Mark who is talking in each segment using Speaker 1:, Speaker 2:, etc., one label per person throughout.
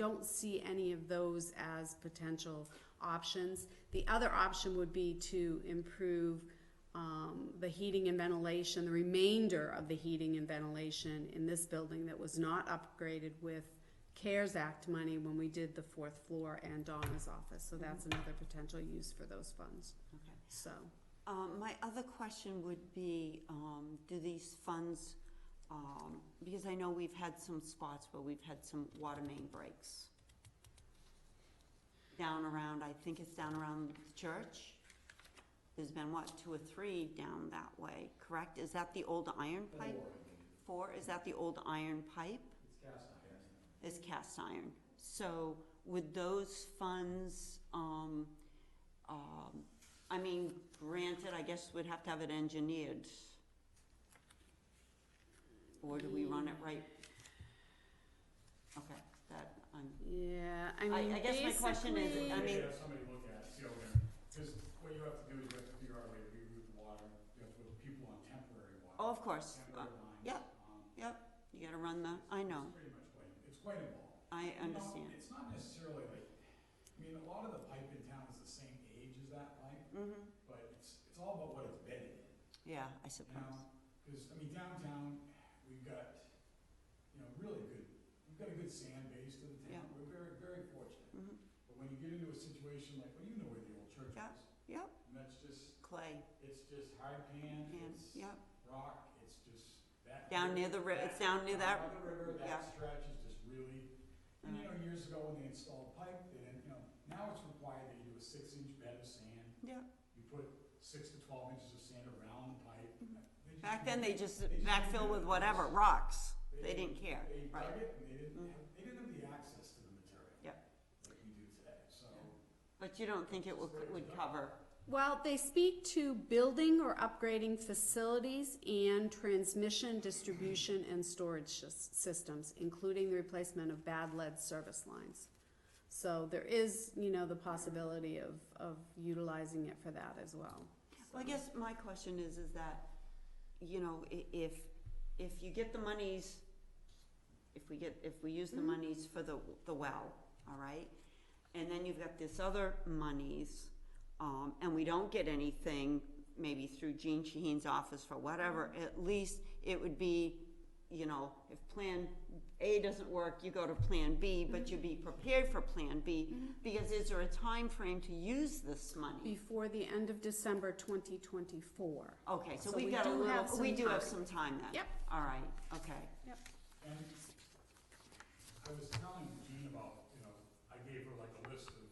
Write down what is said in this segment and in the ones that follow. Speaker 1: don't see any of those as potential options. The other option would be to improve um, the heating and ventilation, the remainder of the heating and ventilation in this building that was not upgraded with CARES Act money when we did the fourth floor and Donna's office. So that's
Speaker 2: Mm-hmm.
Speaker 1: another potential use for those funds,
Speaker 2: Okay.
Speaker 1: so.
Speaker 2: Um, my other question would be, um, do these funds, um, because I know we've had some spots where we've had some water main breaks. Down around, I think it's down around the church. There's been what, two or three down that way, correct? Is that the old iron pipe? Four, is that the old iron pipe? It's cast iron. It's cast iron. So would those funds, um, um, I mean, granted, I guess we'd have to have it engineered. Or do we run it right? Okay, that, I'm,
Speaker 1: Yeah, I
Speaker 2: I-
Speaker 1: mean,
Speaker 2: I guess my question is, I
Speaker 1: basically-
Speaker 2: mean-
Speaker 3: You should have somebody look at it, see over there, because what you have to do is you have to figure out a way to reroute the water, you have to put people on temporary water.
Speaker 2: oh, of course, uh,
Speaker 3: Temporary lines.
Speaker 2: yeah.
Speaker 3: um,
Speaker 2: you gotta run the, I know,
Speaker 3: It's pretty much quite, it's quite involved.
Speaker 2: I
Speaker 3: You know,
Speaker 2: understand.
Speaker 3: It's not necessarily like, I mean, a lot of the pipe in town is the same age as that pipe,
Speaker 2: hmm
Speaker 3: but it's, it's all about what it's bedded in.
Speaker 2: yeah, I
Speaker 3: You
Speaker 2: suppose,
Speaker 3: know, because, I mean, downtown, we've got, you know, really good, we've got a good sand base to the town.
Speaker 2: Yeah.
Speaker 3: We're very, very fortunate.
Speaker 2: Mhm.
Speaker 3: But when you get into a situation like, well, you know where the old church
Speaker 2: Yeah.
Speaker 3: was.
Speaker 2: Yep.
Speaker 3: And that's just,
Speaker 2: clay,
Speaker 3: it's just hard pan,
Speaker 2: and,
Speaker 3: it's
Speaker 2: yeah,
Speaker 3: rock, it's just that.
Speaker 2: down near the ri- it's down near that,
Speaker 3: Down by the river,
Speaker 2: yeah.
Speaker 3: that stretch is just really, and you know, years ago when they installed pipe, they didn't, you know, now it's required that you do a six-inch bed of sand.
Speaker 2: yeah.
Speaker 3: You put six to twelve inches of sand around the pipe. They just
Speaker 2: Mm-hmm. Back then, they
Speaker 3: make-
Speaker 2: just backfill with whatever, rocks, they didn't care,
Speaker 3: They
Speaker 2: right?
Speaker 3: dug it and they didn't
Speaker 2: Mm.
Speaker 3: have, they didn't have the access to the material.
Speaker 2: Yep.
Speaker 3: Like we do today, so.
Speaker 2: But you don't think it would, would cover,
Speaker 1: Well, they speak to building or upgrading facilities and transmission, distribution, and storage sys- systems, including the replacement of bad lead service lines. So there is, you know, the possibility of, of utilizing it for that as well.
Speaker 2: well, I guess my question is, is that, you know, i- if, if you get the monies, if we get, if we use the
Speaker 1: Mhm.
Speaker 2: monies for the, the well, all right? And then you've got this other monies, um, and we don't get anything, maybe through Gene Shaheen's office for whatever, at least it would be, you know, if plan A doesn't work, you go to plan B, but you be prepared for plan B, because is there a time frame to use this money?
Speaker 1: Before the end of December twenty twenty-four.
Speaker 2: Okay, so
Speaker 1: So
Speaker 2: we've
Speaker 1: we
Speaker 2: got a
Speaker 1: do have
Speaker 2: little, we
Speaker 1: some
Speaker 2: do have
Speaker 1: time.
Speaker 2: some time then.
Speaker 1: Yep.
Speaker 2: All right, okay,
Speaker 3: And I was telling Jean about, you know, I gave her like a list of,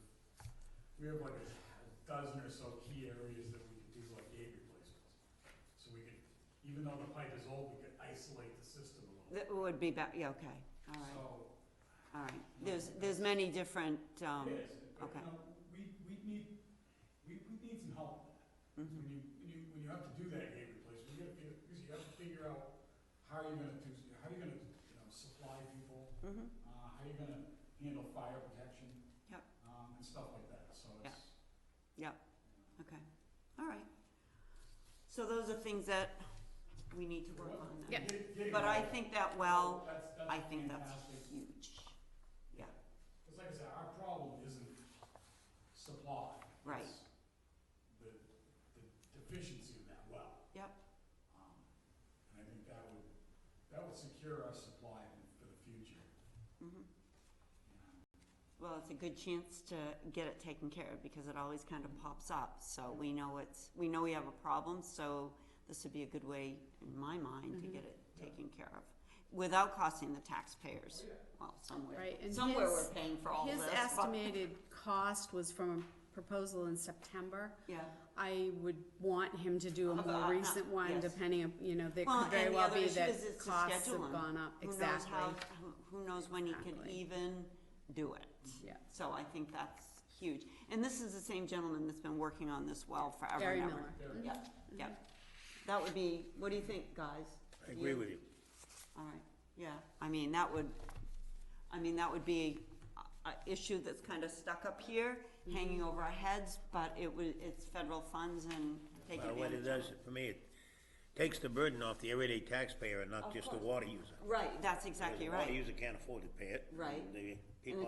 Speaker 3: we have like a dozen or so key areas that we could do like gate replacements. So we could, even though the pipe is old, we could isolate the system a little.
Speaker 2: that would be, ba- yeah, okay, all right,
Speaker 3: So
Speaker 2: all right. There's, there's many different, um,
Speaker 3: it is, but
Speaker 2: okay.
Speaker 3: you know, we, we need, we, we need some help with that.
Speaker 2: mhm.
Speaker 3: When you, when you, when you have to do that gate replacement, you gotta figure, because you have to figure out how you're gonna do, how you're gonna, you know, supply people,
Speaker 2: Mhm.
Speaker 3: uh, how you're gonna handle fire protection.
Speaker 2: Yep.
Speaker 3: Um, and stuff like that, so
Speaker 2: Yeah.
Speaker 3: it's.
Speaker 2: Yep. Okay, all right. So those are things that we need to work on then.
Speaker 1: Yep.
Speaker 3: Get- getting
Speaker 2: But I
Speaker 3: all-
Speaker 2: think that well,
Speaker 3: that's- that's
Speaker 2: I think that's
Speaker 3: fantastic.
Speaker 2: huge, yeah.
Speaker 3: Cause like I said, our problem isn't supply.
Speaker 2: Right.
Speaker 3: it's The, the deficiency of that well.
Speaker 2: Yep.
Speaker 3: Um, And I think that would, that would secure our supply for the future,
Speaker 2: Mhm.
Speaker 3: you know.
Speaker 2: Well, it's a good chance to get it taken care of because it always kind of pops up. So we know it's, we know we have a problem, so this would be a good way, in my mind, to
Speaker 1: Mm-hmm.
Speaker 2: get it taken care of without costing the taxpayers. Well, somewhere,
Speaker 1: Right, and
Speaker 2: somewhere
Speaker 1: his-
Speaker 2: we're paying for all this.
Speaker 1: His
Speaker 2: but-
Speaker 1: estimated cost was from a proposal in September.
Speaker 2: Yeah,
Speaker 1: I would want him to do a
Speaker 2: Uh, uh,
Speaker 1: more recent one,
Speaker 2: yes.
Speaker 1: depending, on- you know, there
Speaker 2: Well,
Speaker 1: could very
Speaker 2: and the
Speaker 1: well
Speaker 2: other
Speaker 1: be
Speaker 2: issue
Speaker 1: that
Speaker 2: is it's the
Speaker 1: costs have
Speaker 2: scheduling.
Speaker 1: gone up,
Speaker 2: who knows how,
Speaker 1: exactly,
Speaker 2: who, who knows when he could
Speaker 1: Exactly.
Speaker 2: even do it.
Speaker 1: yeah,
Speaker 2: So I think that's huge. And this is the same gentleman that's been working on this well forever
Speaker 1: Gary
Speaker 2: and ever.
Speaker 1: Miller. Mm-hmm.
Speaker 3: Gary.
Speaker 2: Yep, yep. That would be, what do you think, guys?
Speaker 4: I agree with you.
Speaker 2: All right, yeah, I mean, that would, I mean, that would be a, a issue that's kind of stuck up here,
Speaker 1: Mm-hmm.
Speaker 2: hanging over our heads, but it would, it's federal funds and take
Speaker 4: Well, what
Speaker 2: advantage
Speaker 4: it
Speaker 2: of
Speaker 4: does,
Speaker 2: it.
Speaker 4: for me, it takes the burden off the everyday taxpayer and not just the water user.
Speaker 2: Right, that's exactly
Speaker 4: The
Speaker 2: right.
Speaker 4: water user can't afford to pay it.
Speaker 2: Right.
Speaker 4: and the
Speaker 2: And
Speaker 4: people